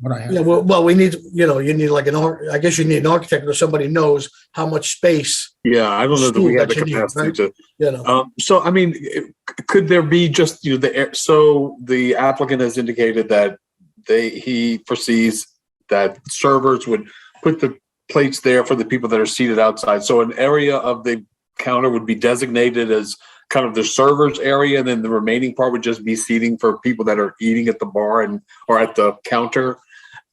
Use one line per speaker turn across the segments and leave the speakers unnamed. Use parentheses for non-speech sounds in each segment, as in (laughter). what I
Yeah,
have.
well, well, we need, you know, you need like an, ar- I guess you need an architect or somebody knows how much space,
Yeah, I don't know that we
School
have the
that you need,
capacity
right?
to.
you know.
Um, so, I mean, it- could there be just, you know, the, air- so the applicant has indicated that they, he foresees that servers would put the plates there for the people that are seated outside. So an area of the counter would be designated as kind of the servers area, and then the remaining part would just be seating for people that are eating at the bar and, or at the counter.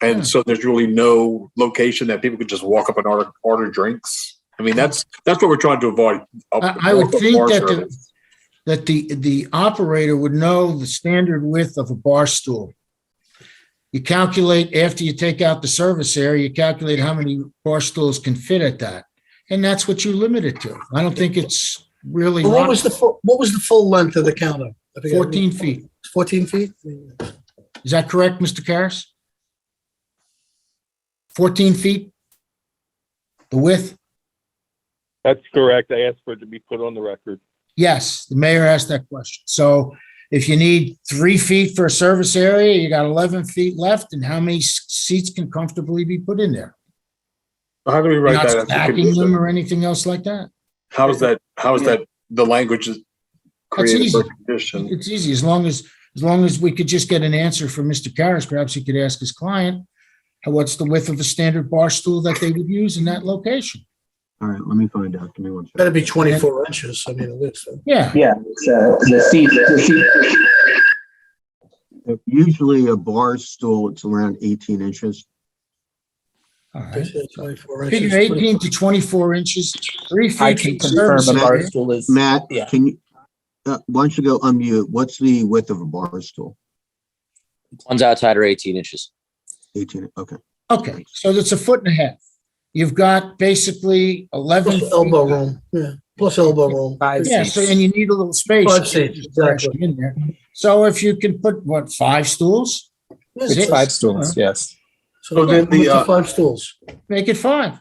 Hmm.
And so there's really no location that people could just walk up and order, order drinks. I mean, that's, that's what we're trying to avoid.
I, I would think
Bar
that
service.
the, that the, the operator would know the standard width of a bar stool. You calculate, after you take out the service area, you calculate how many bar stools can fit at that. And that's what you limit it to. I don't think it's really
Well, What was the, fu- what was the full length of the counter? I forget.
14 feet.
Fourteen feet?
Is that correct, Mr. Karas? 14 feet? The width?
That's correct. I asked for it to be put on the record.
Yes, the mayor asked that question. So if you need three feet for a service area, you got 11 feet left, and how many s- seats can comfortably be put in there?
How do we write
Not
that? as a
stacking them
condition?
or anything else like that?
How is that, how is that, the language is created for
easy.
condition?
It's easy, as long as, as long as we could just get an answer from Mr. Karas, perhaps he could ask his client, what's the width of a standard bar stool that they would use in that location?
All right, let me find out. Give me one second.
Better be twenty-four inches, I mean, at least.
Yeah,
Yeah, it's, uh, the seat, the seat,
Usually a bar stool, it's around 18 inches.
all right.
Twenty-four inches.
Figure 18 to 24 inches, three
I
feet.
can
from
confirm
service
a bar
area.
stool is,
Matt,
Yeah.
can you, uh, why don't you go unmute? What's the width of a bar stool?
One's outside are 18 inches.
18, okay.
Okay, so that's a foot and a half. You've got basically 11.
Plus
feet.
elbow room, yeah, plus elbow room.
Five
Yeah, so, and you need a little space.
Five seats, exactly.
In there. So if you can put, what, five stools,
It's
five
stools, yes.
So
then
then with
the,
the
uh,
five stools.
make it five.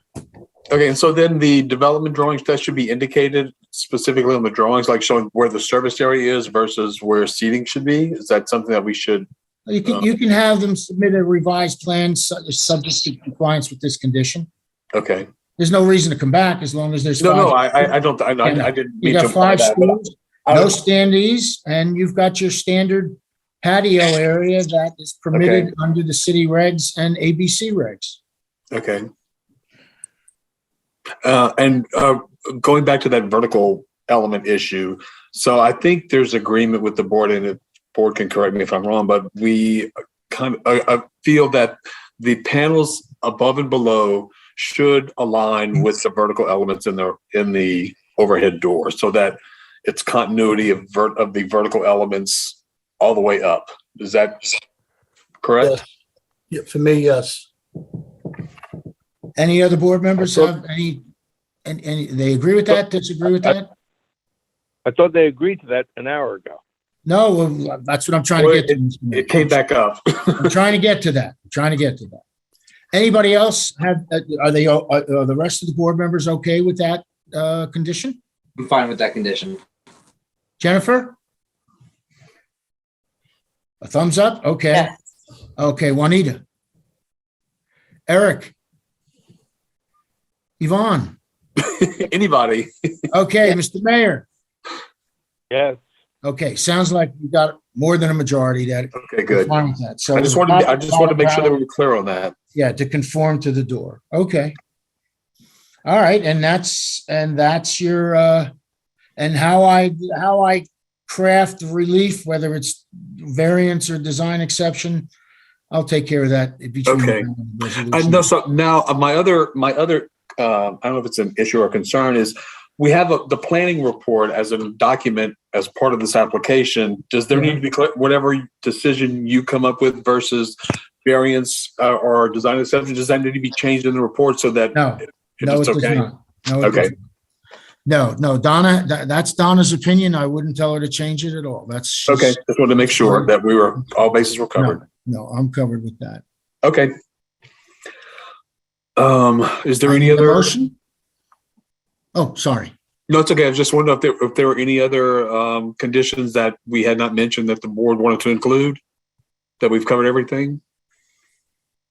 Okay, and so then the development drawings, that should be indicated specifically on the drawings, like showing where the service area is versus where seating should be? Is that something that we should,
You can, you can have them submit a revised plan su- subject to compliance with this condition.
okay.
There's no reason to come back as long as there's.
No, no,
five-
I, I- I don't, I I I didn't
You
mean to.
got
imply
five
that, but
stools,
I-
no standees, and you've got your standard patio area that is permitted under the city regs and ABC regs.
Okay. Uh, and uh, going back to that vertical element issue, so I think there's agreement with the board, and the board can correct me if I'm wrong, but we kind of I, I feel that the panels above and below should align with the vertical elements in the in the overhead door, so that it's continuity of vert of the vertical elements all the way up. Is that correct?
Yes. Yeah, for me, yes.
Any other board members have any, and, and they agree with that, disagree with that?
I thought they agreed to that an hour ago.
No, well, that's what I'm trying to get to.
It came back up. (laughs)
I'm trying to get to that, I'm trying to get to that. Anybody else have, uh, are they, are, are the rest of the board members okay with that, uh, condition?
I'm fine with that condition.
Jennifer? A thumbs up? Okay. Okay, Juanita? Eric? Yvonne?
Anybody?
Okay, Mr. Mayor?
Yes.
Okay, sounds like you got more than a majority that
Okay, good.
Fine with that. So
I just
it's
wanted, I
not-
just wanted to make sure that we were clear on that.
Yeah, to conform to the door. Okay. All right, and that's, and that's your, uh, and how I, how I craft relief, whether it's variance or design exception, I'll take care of that. between
Okay.
now and the
I
resolution.
know, so now, uh, my other, my other, uh, I don't know if it's an issue or concern is we have a- the planning report as a document as part of this application. Does there need to be, cl- whatever decision you come up with versus variance uh, or design exception, does that need to be changed in the report so that
No, no, it
it's
does
okay?
not. No, it does
Okay.
not. No, no, Donna, tha- that's Donna's opinion. I wouldn't tell her to change it at all. That's. she's-
Okay, just wanted to make sure that we were, all bases were covered.
No, No, I'm covered with that.
Okay. Um, is there any
Need a
other?
Motion? Oh, sorry.
No, it's okay. I was just wondering if there, if there were any other um, conditions that we had not mentioned that the board wanted to include? That we've covered everything?